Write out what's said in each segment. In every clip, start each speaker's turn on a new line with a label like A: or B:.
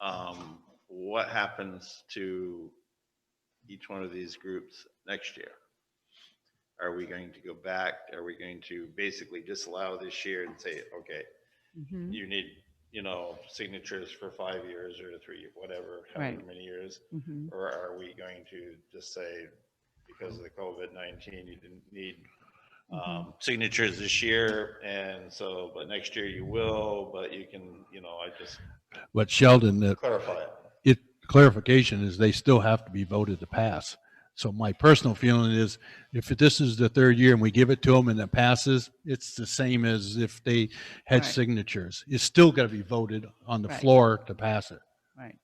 A: um, what happens to each one of these groups next year? Are we going to go back? Are we going to basically disallow this year and say, okay,
B: Mhm,
A: you need, you know, signatures for five years or three, whatever, however
B: Right.
A: many years?
B: mhm.
A: Or are we going to just say, because of the COVID-19, you didn't need
B: Mm-hmm.
A: um, signatures this year, and so, but next year you will, but you can, you know, I just
C: But Sheldon, the
A: clarify it.
C: it, clarification is they still have to be voted to pass. So my personal feeling is if this is the third year and we give it to them and it passes, it's the same as if they had
B: Right.
C: signatures. It's still got to be voted on the
B: Right.
C: floor to pass it.
B: Right.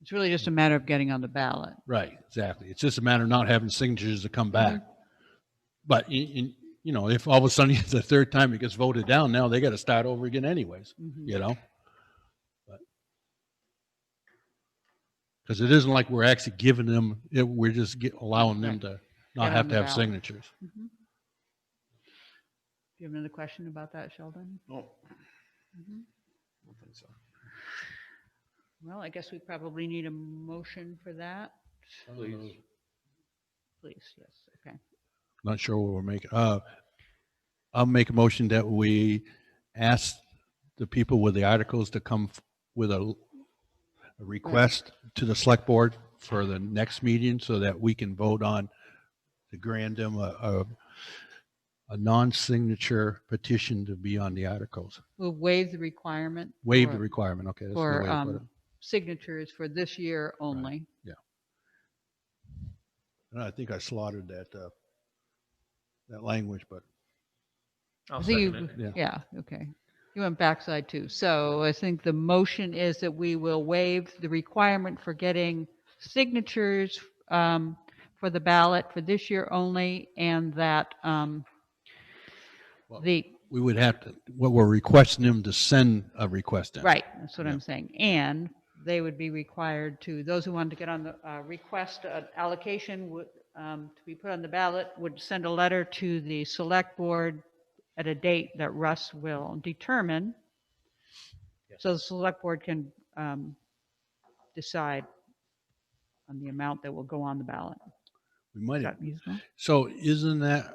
B: It's really just a matter of getting on the ballot.
C: Right, exactly. It's just a matter of not having signatures to come back.
B: Mm-hmm.
C: But in, in, you know, if all of a sudden it's the third time it gets voted down, now they got to start over again anyways,
B: Mhm.
C: you know? Because it isn't like we're actually giving them, it, we're just get- allowing them
B: Right.
C: to
B: Get
C: not have
B: on
C: to
B: the
C: have
B: ballot.
C: signatures.
B: Mhm. Do you have another question about that, Sheldon?
A: No,
B: Mhm.
A: I don't think so.
B: Well, I guess we probably need a motion for that,
A: Please.
B: please, yes, okay.
C: Not sure what we're making. Uh, I'll make a motion that we ask the people with the articles to come f- with a, a request to the select board for the next meeting so that we can vote on the grandam, a, a, a non-signature petition to be on the articles.
B: We'll waive the requirement.
C: Waive the
B: for-
C: requirement, okay. that's the way
B: For
C: to put it.
B: um, signatures for this year only.
C: And I think I slaughtered that, uh, that language, but
B: I
D: I'll
B: think
D: second
B: you-
D: it.
C: Yeah.
B: Yeah, okay. You went backside too. So I think the motion is that we will waive the requirement for getting signatures um, for the ballot for this year only and that um,
C: Well-
B: the,
C: we would have to, what we're requesting them to send a request in.
B: right, that's what
C: Yeah.
B: I'm saying. And they would be required to, those who wanted to get on the, uh, request an allocation would, um, to be put on the ballot, would send a letter to the select board at a date that Russ will determine. So the select board can um, decide on the amount that will go on the ballot.
C: We might
B: Is
C: have
B: that reasonable?
C: So isn't that,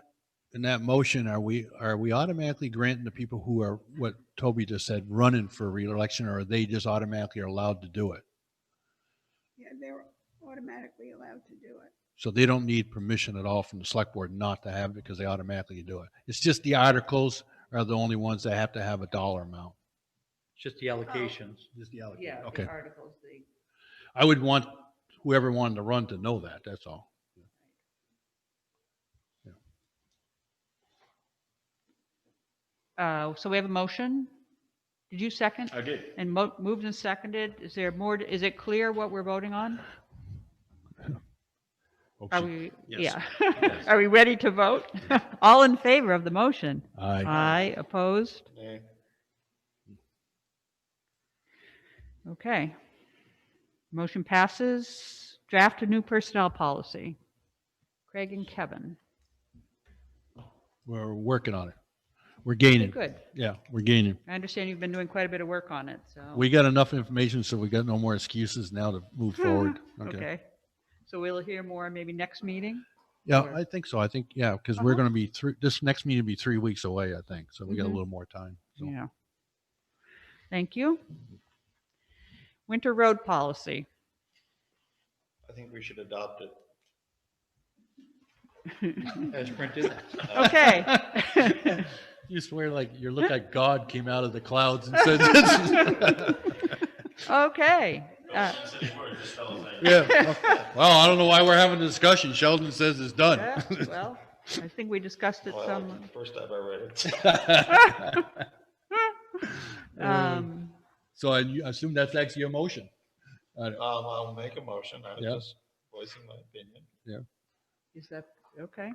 C: in that motion, are we, are we automatically granting the people who are, what Toby just said, running for reelection, or are they just automatically allowed to do it?
E: Yeah, they're automatically allowed to do it.
C: So they don't need permission at all from the select board not to have it because they automatically do it. It's just the articles are the only ones that have to have a dollar amount.
D: It's Just the allocations.
C: Just the allocation. Okay.
B: articles, the.
C: I would want whoever wanted to run to know that, that's all.
B: Uh, So we have a motion? Did you second?
A: I did.
B: And mo- moved and seconded? Is there more, is it clear what we're voting on? Are we, yeah.
A: Yes.
B: Are we ready to vote? All in favor of the motion?
C: Aye.
B: Aye, opposed?
A: Eh,
B: Okay. Motion passes. Draft a new personnel policy. Craig and Kevin.
C: We're working on it. We're
B: Okay,
C: gaining.
B: Good.
C: Yeah, we're gaining.
B: I understand you've been doing quite a bit of work on it, so.
C: We got enough information, so we got no more excuses now to move forward. Okay.
B: Okay. So we'll hear more maybe next meeting?
C: Yeah,
B: Or-
C: I think so. I think, yeah, because we're
B: Uh-huh.
C: going to be through, this next meeting will be three weeks away, I think. So we got a
B: Mhm.
C: little more time. So
B: Yeah. Thank you. Winter road policy.
A: I think we should adopt it.
D: As printed.
B: Okay.
C: You swear like, you look like God came out of the clouds and said, this is-
B: Okay. Uh,
C: yeah. Well, I don't know why we're having a discussion. Sheldon says it's done.
B: yeah, Well, I think we discussed it
A: Well,
B: some. Ah!
A: First time I read it.
B: um,
C: So I you- I assume that's actually your motion.
A: Um, I'll make a motion. I
C: Yeah.
A: was just voicing my opinion.
B: Is that, okay.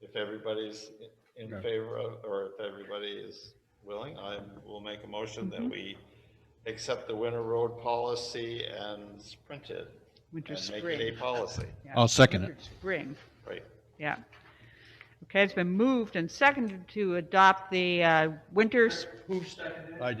A: If everybody's in
C: Yeah.
A: favor of, or if everybody is willing, I will make a motion that
B: Mhm.
A: we accept the winter road policy and print it.
B: Winter
A: And make it
B: spring.
A: a policy,
B: yeah.
C: I'll second it.
B: Winter Spring,
A: right?
B: yeah. Okay, it's been moved and seconded to adopt the uh, winter spring
C: I